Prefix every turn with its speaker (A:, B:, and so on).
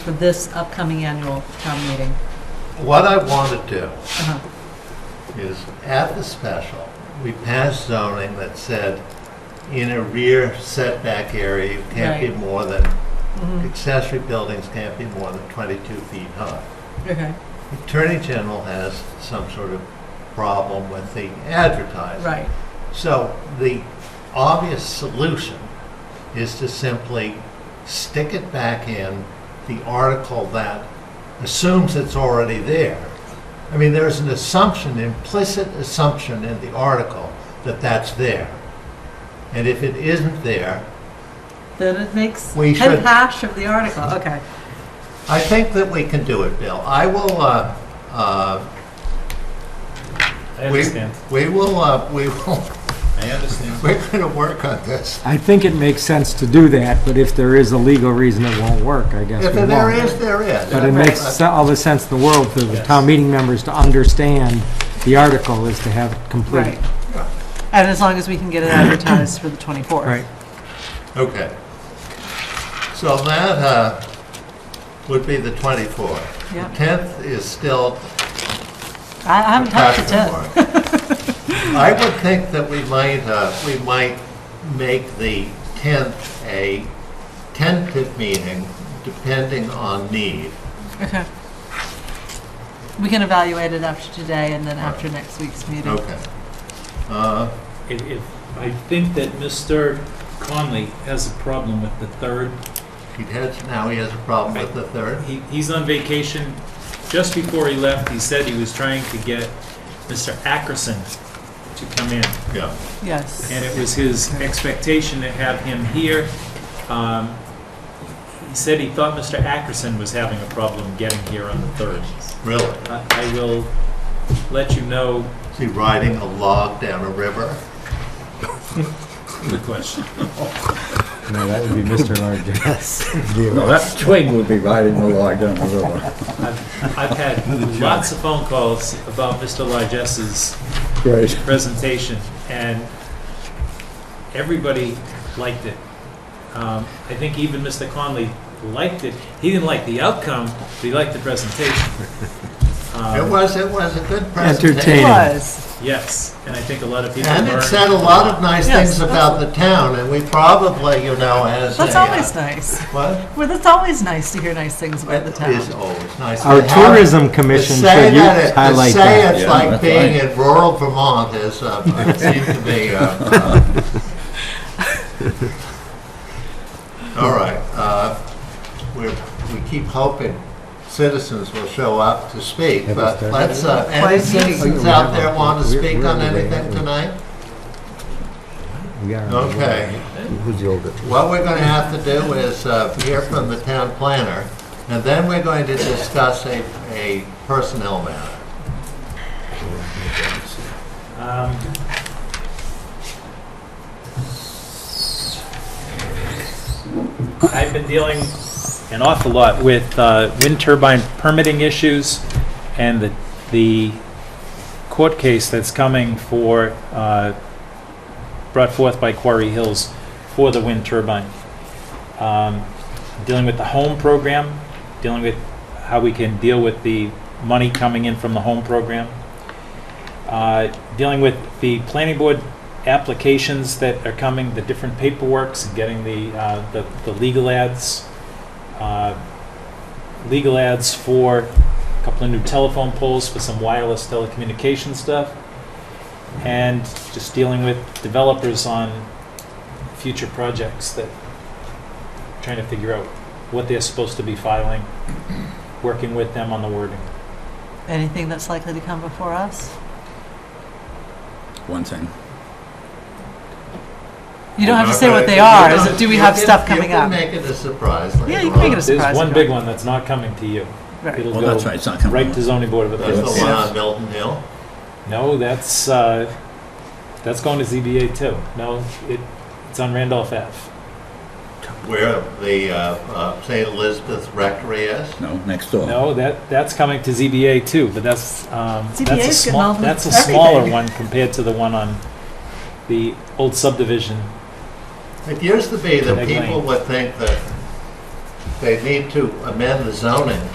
A: for this upcoming annual town meeting.
B: What I want to do
A: Uh-huh.
B: is, at the special, we passed zoning that said, in a rear setback area, you can't be
A: Right.
B: more than, Mm-hmm.
A: Mhm.
B: accessory buildings can't be more than 22 feet high.
A: Okay,
B: The Attorney General has some sort of problem with the advertising.
A: right,
B: So the obvious solution is to simply stick it back in the article that assumes it's already there. I mean, there's an assumption, implicit assumption in the article that that's there. And if it isn't there,
A: then it makes
B: We
A: head
B: should-
A: hash of the article, okay.
B: I think that we can do it, Bill. I will, uh, uh,
C: I
B: we,
C: understand.
B: we will, uh, we will,
C: I understand.
B: we're going to work on this.
D: I think it makes sense to do that, but if there is a legal reason it won't work, I guess
B: If
D: we
B: there
D: won't.
B: is, there is.
D: But it makes se- all the sense in the world for the town meeting members to understand the article is to have it complete.
A: Right. And as long as we can get it advertised for the 24th.
D: Right.
B: Okay. So that uh, would be the 24th. The
A: Yeah.
B: 10th is still
A: I I haven't touched it
B: question
A: yet.
B: mark. I would think that we might, uh, we might make the 10th a tentative meeting, depending on need.
A: Okay. We can evaluate it after today and then after next week's meeting.
B: Okay. Uh,
C: If, if, I think that Mr. Conley has a problem with the third.
B: He has, now he has a problem with the 3rd.
C: He, he's on vacation. Just before he left, he said he was trying to get Mr. Ackerson to come in.
B: Yeah.
A: Yes.
C: And it was his expectation to have him here. Um, He said he thought Mr. Ackerson was having a problem getting here on the third.
B: Really?
C: I, I will let you know
B: Is he riding a log down a river?
C: the question.
E: No, that would be Mr. Large.
F: Well, that twig would be riding the log down the river.
C: I've, I've had lots of phone calls about Mr. Largess's
F: Great.
C: presentation, and everybody liked it. Um, I think even Mr. Conley liked it. He didn't like the outcome, but he liked the presentation.
B: It
C: Um,
B: was, it was a good presentation.
A: It
D: Entertaining.
A: was.
C: Yes, and I think a lot of people
B: And it
C: learned.
B: said a lot of nice
A: Yes,
B: things about the town, and we probably, you know, as a...
A: That's always nice.
B: What?
A: Well, that's always nice to hear nice things about the
B: It is
A: town.
B: always nice.
D: Our
B: to have-
D: tourism
B: to
D: commission
B: say
D: should u-
B: that it-
D: highlight
B: To
D: that.
B: say it's
F: Yeah,
B: like
F: that's
B: being
F: right.
B: in rural Vermont is, uh, it seems to be, uh, uh, all right, uh, we're, we keep hoping citizens will show up to speak,
E: Yeah,
B: but
E: that's right.
B: let's, uh,
A: Why is
B: any
A: he-
B: citizens out there want to
E: We're-
B: speak
E: we're
B: on
E: the way
B: anything
E: out.
B: tonight?
E: We are.
B: Okay.
E: Who's the oldest?
B: What we're going to have to do is uh, hear from the town planner, and then we're going to discuss a, a personnel matter.
C: Um, I've been dealing an awful lot with uh, wind turbine permitting issues and the, the court case that's coming for, uh, brought forth by Quarry Hills for the wind turbine. Um, Dealing with the home program, dealing with how we can deal with the money coming in from the home program uh, dealing with the planning board applications that are coming, the different paperworks, getting the, uh, the the legal ads, uh, legal ads for a couple of new telephone poles for some wireless telecommunication stuff, and just dealing with developers on future projects that, trying to figure out what they're supposed to be filing, working with them on the wording.
A: Anything that's likely to come before us?
F: One thing.
A: You don't have to
B: You're
A: say
B: not
A: what
B: gonna-
A: they
B: you
A: are,
B: don't-
A: is it, do we
B: you
A: have
B: can-
A: stuff coming up?
B: You can make it a surprise later on.
A: Yeah, you can make it a surprise.
C: There's one
A: if
C: big
A: you
C: one that's not coming to you.
A: want. Right.
C: It'll
F: Well, that's
C: go
F: right, it's not coming.
C: Right to zoning board of
B: That's the
C: appeals.
B: one on Milton Hill.
C: No, that's, uh, that's going to ZBA too. No, it, it's on Randolph Ave.
B: Where the uh, uh, St. Elizabeth Rectory is?
F: No, next door.
C: No, that, that's coming to ZBA too, but that's, um, that's a
A: ZBA's getting
C: small,
A: all the-
C: that's a smaller
A: everything.
C: one compared to the one on the old subdivision.
B: It used to be that
C: Big lane.
B: people would think that they need to amend the zoning